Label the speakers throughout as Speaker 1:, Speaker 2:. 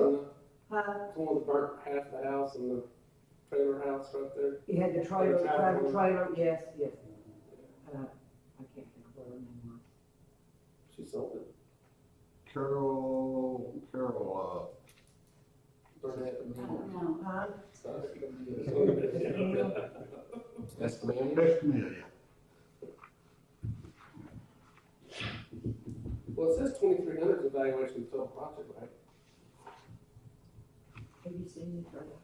Speaker 1: uh,
Speaker 2: Huh?
Speaker 1: It's one of the burnt half of the house and the trailer house right there.
Speaker 2: You had the trailer,
Speaker 1: Trailer
Speaker 2: trailer,
Speaker 1: trailer.
Speaker 2: trailer, yes, yes. Uh, I can't think of what her name was.
Speaker 1: She sold it.
Speaker 3: Carol, Carol,
Speaker 1: Burnett.
Speaker 4: I don't know.
Speaker 2: Huh?
Speaker 5: uh, That's the
Speaker 3: uh,
Speaker 5: man.
Speaker 3: Best Amelia.
Speaker 1: Well, it says twenty-three hundred evaluation of total project, right?
Speaker 2: Have you seen the trailer?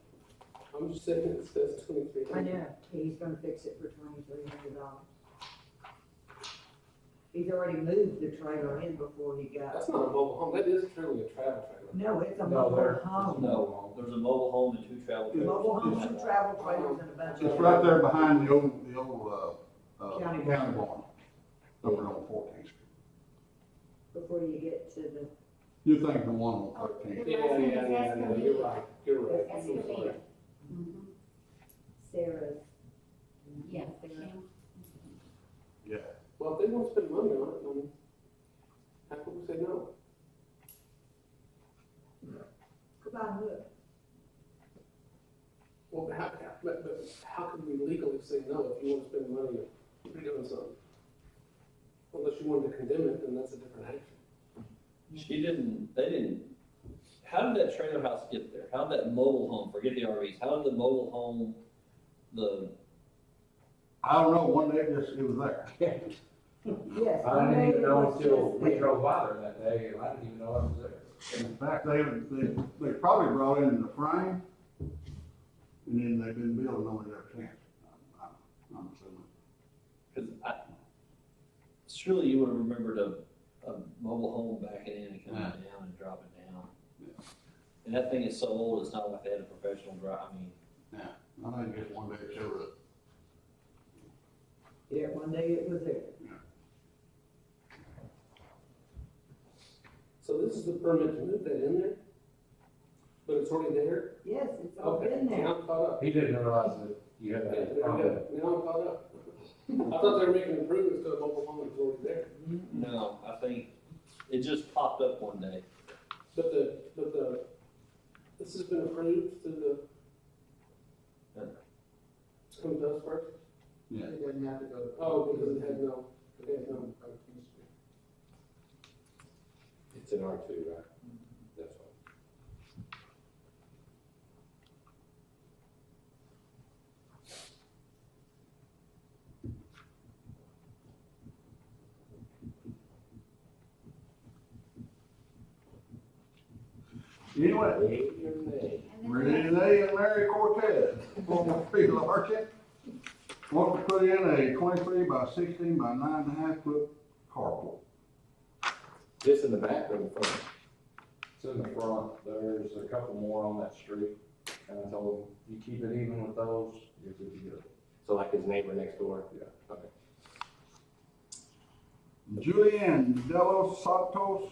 Speaker 1: I'm just saying it says twenty-three
Speaker 2: I
Speaker 1: hundred.
Speaker 2: know, he's gonna fix it for twenty-three hundred dollars. He's already moved the trailer in before he got,
Speaker 1: That's not a mobile home, that is truly a travel trailer.
Speaker 2: no, it's a
Speaker 6: No,
Speaker 2: mobile
Speaker 6: there-
Speaker 2: home.
Speaker 6: No, there's a mobile home and two travel trailers.
Speaker 2: Mobile homes and travel trailers and a bunch of.
Speaker 3: It's right there behind the old, the old, uh, uh,
Speaker 2: County barn.
Speaker 3: county barn, over on Fourteenth Street.
Speaker 2: Before you get to the.
Speaker 3: You think the one on Thirteenth?
Speaker 1: Yeah, yeah, yeah, yeah, you're right, you're right.
Speaker 4: That's
Speaker 1: I'm sorry.
Speaker 4: Escovita. Mhm.
Speaker 2: Sarah's.
Speaker 4: Yeah, the
Speaker 2: Sarah.
Speaker 4: camp.
Speaker 3: Yeah.
Speaker 1: Well, if they want to spend money on it, then how can we say no?
Speaker 2: Goodbye, look.
Speaker 1: Well, how, how- but, but how can we legally say no if you want to spend money on doing something? Unless you wanted to condemn it, then that's a different action.
Speaker 6: She didn't, they didn't, how did that trailer house get there? How did that mobile home, forget the RVs, how did the mobile home, the,
Speaker 3: I don't know, one day it just, it was there.
Speaker 2: Yes.
Speaker 5: I didn't even know until we
Speaker 2: Yes.
Speaker 5: drove by there that day, and I didn't even know I was there.
Speaker 3: In fact, they, they, they probably brought in the frame, and then they've been building on it ever since. I'm- I'm- I'm assuming.
Speaker 6: because I, surely you would have remembered a, a mobile home backing in and coming
Speaker 3: Yeah.
Speaker 6: down and dropping down.
Speaker 3: Yeah.
Speaker 6: And that thing is so old, it's not like they had a professional drive, I mean,
Speaker 3: I think just one day it showed up.
Speaker 2: Yeah, one day it was there.
Speaker 1: So this is the permit to move that in there? But it's already there?
Speaker 2: Yes, it's all
Speaker 1: Okay,
Speaker 2: been there.
Speaker 1: Now I'm caught up.
Speaker 5: He didn't realize that you had
Speaker 1: Yeah,
Speaker 5: that.
Speaker 1: Now I'm
Speaker 5: problem.
Speaker 1: caught up. I thought they were making improvements to a mobile home that's already there.
Speaker 6: no, I think it just popped up one day.
Speaker 1: But the, but the, this has been approved through the.
Speaker 6: Yeah.
Speaker 1: Come to us first?
Speaker 3: Yeah.
Speaker 1: It doesn't have to go. Oh, because it had no, it had no.
Speaker 5: It's an R two, right? That's all.
Speaker 3: Anyway,
Speaker 4: And then we have-
Speaker 3: Renee and Larry Cortez, former field architect, want to put in a twenty-three by sixteen by nine and a half foot carport.
Speaker 5: This in the back or the front? It's in the front, there's a couple more on that street, and I told him, you keep it even with those, you're good to go. So like his neighbor next door? Yeah. Okay.
Speaker 3: Julian Delos Santos,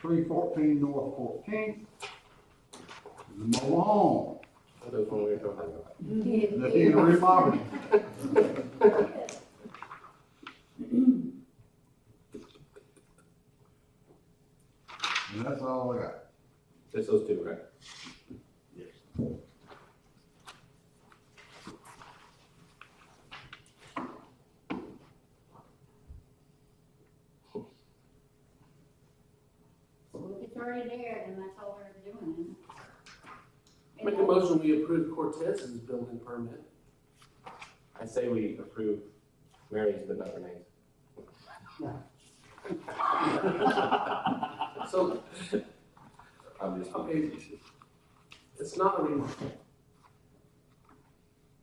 Speaker 3: three fourteen North Fourteenth. Malone,
Speaker 5: That was when we were talking about.
Speaker 3: that he remodeled. And that's all I got.
Speaker 5: Just those two, right?
Speaker 4: If it's already there, then that's all we're doing. And
Speaker 1: Make a
Speaker 4: that-
Speaker 1: motion, we approve Cortez's building permit.
Speaker 5: I say we approve Mary's, but not Renee's.
Speaker 1: So,
Speaker 5: I'm just.
Speaker 1: okay, it's not a remodel,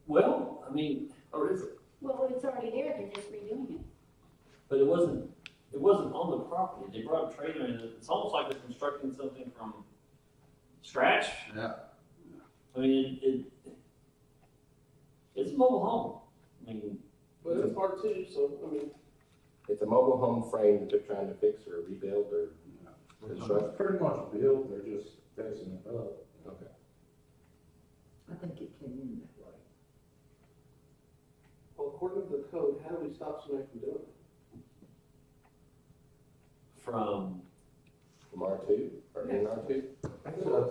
Speaker 6: Well, I mean,
Speaker 1: or is it?
Speaker 4: Well, it's already there, they're just redoing it.
Speaker 6: But it wasn't, it wasn't on the property, they brought a trailer in, it's almost like they're constructing something from scratch.
Speaker 3: Yeah.
Speaker 6: I mean, it, it, it's a mobile home, I mean,
Speaker 1: But it's part two, so, I mean,
Speaker 5: It's a mobile home frame that they're trying to fix or rebuild or construct.
Speaker 7: Pretty much built, they're just fixing it up.
Speaker 5: Okay.
Speaker 2: I think it came in that way.
Speaker 1: well, according to the code, how do we stop somebody from doing it?
Speaker 6: from
Speaker 5: From R two, or in R two?
Speaker 1: I think